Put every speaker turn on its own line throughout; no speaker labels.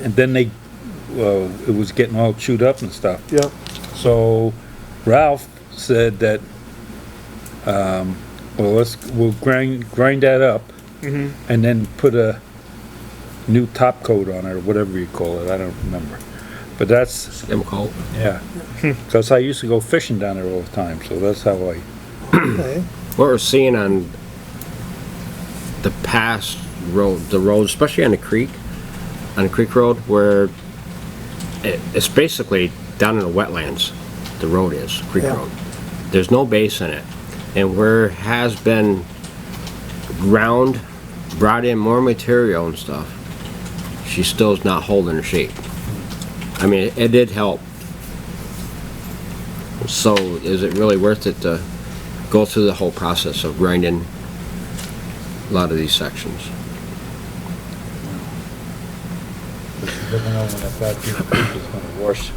and then they, uh, it was getting all chewed up and stuff.
yeah,
So Ralph said that, um, well, let's, we'll grind, grind that up and then put a new top coat on it or whatever you call it. I don't remember. But that's,
Skim coat.
yeah. Cause I used to go fishing down there all the time, so that's how I,
okay,
What we're seeing on the past road, the road, especially on the creek, on the creek road, where it, it's basically down in the wetlands, the road is, creek
Yeah.
road. There's no base in it. And where has been ground, brought in more material and stuff, she still is not holding her shape. I mean, it did help. So is it really worth it to go through the whole process of grinding a lot of these sections?
I don't know when I thought you was gonna wash,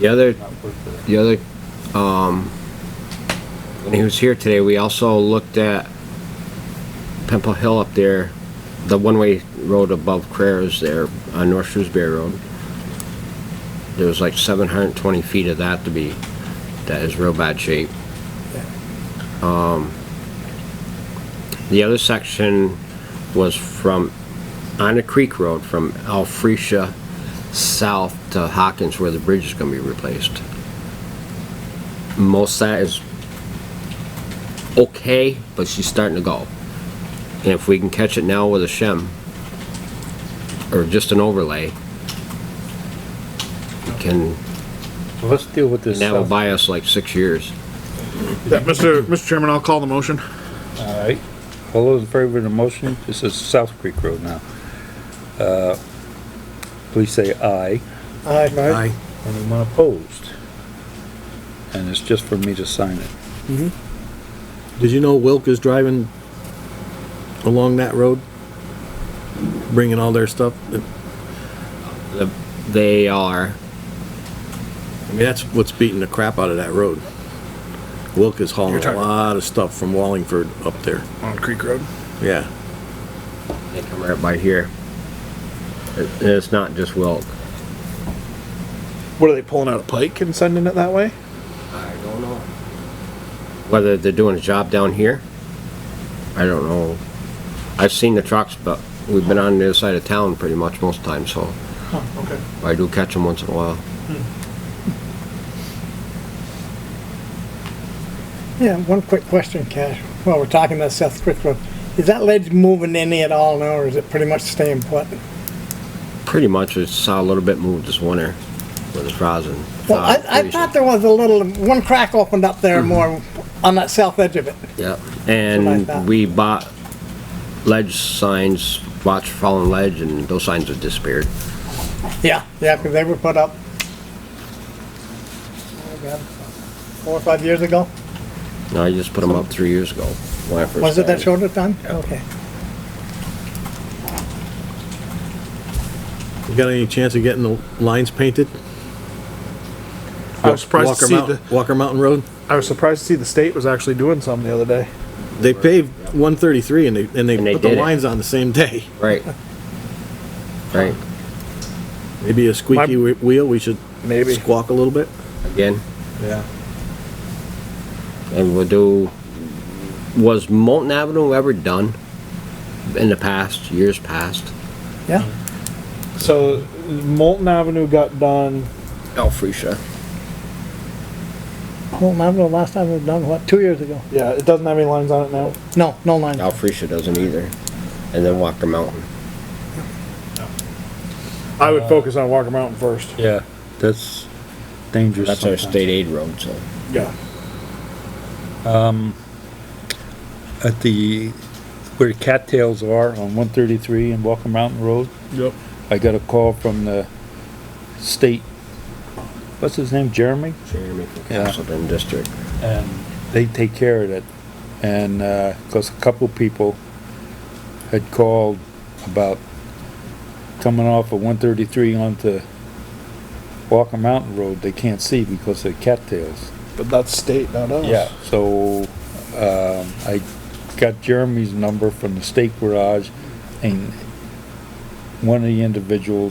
The other,
not worth it.
the other, um, when he was here today, we also looked at Pimple Hill up there, the one-way road above Crayers there on North Shrewsbury Road. There was like seven hundred and twenty feet of that to be, that is real bad shape. Um, The other section was from, on the Creek Road, from Alphresia south to Hawkins where the bridge is gonna be replaced. Most of that is okay, but she's starting to go. And if we can catch it now with a shim, or just an overlay, we can,
So Let's deal with this. um,
that will
stuff.
buy us like six years.
Yeah, Mr. Mr. Chairman, I'll call the motion.
All right, all those in favor of the motion, this is South Creek Road now. Uh, Please say aye.
aye, right,
Aye.
Anyone opposed? And it's just for me to sign it.
Did you know Wilk is driving along that road? Bringing all their stuff? I
The- They are,
mean, that's what's beating the crap out of that road. Wilk is hauling
You're
a
talking-
lot of stuff from Wallingford up there.
On Creek Road.
Yeah.
they come right by here. It- It's not just Wilk.
What are they pulling out a pike and sending it that way?
I don't know. Whether they're doing a job down here, I don't know. I've seen the trucks, but we've been on the other side of town pretty much most of the time, so
Okay.
I do catch them once in a while.
yeah, one quick question, Cash, while we're talking about South Creek Road, is that ledge moving any at all now, or is it pretty much staying put?
Pretty much, I saw a little bit moved this winter with the frozen.
Well, I, I thought there was a little, one crack opened up there more on that south edge of it,
Yeah,
That's what I thought.
and we bought ledge signs, watch fallen ledge, and those signs have disappeared.
yeah, yeah, because they were put up. oh, God, Four or five years ago,
No, I just put them up three years ago. when I first
was it that
started.
short of time?
Yeah.
Okay.
You got any chance of getting the lines painted?
I was surprised to
Walker
see
Mountain,
the,
Walker Mountain Road?
I was surprised to see the state was actually doing some the other day.
They paved one thirty-three and they, and they
And they
put the
did it.
lines on the same day.
Right. Right,
Maybe a squeaky
My-
whe- wheel, we should
Maybe.
squawk a little bit?
again.
Yeah.
and we'll do, was Molten Avenue ever done in the past, years past?
Yeah,
So Molten Avenue got done.
Alphresia.
well, I don't know, last time we've done, what, two years ago?
Yeah, it doesn't have any lines on it now.
No, no line.
Alphresia doesn't either. And then Walker Mountain.
I would focus on Walker Mountain first.
Yeah. That's dangerous
That's our
sometimes.
state aid road, so.
Yeah.
At the, where the cattails are on one thirty-three and Walker Mountain Road,
Yep.
I got a call from the state, what's his name, Jeremy?
Jeremy from
Yeah.
Castleton District.
and they take care of it. And, uh 'cause cause a couple people had called about coming off of one thirty-three onto Walker Mountain Road, they can't see because of cattails.
But that's state, not us.
So, um, I got Jeremy's number from the state garage and one of the individuals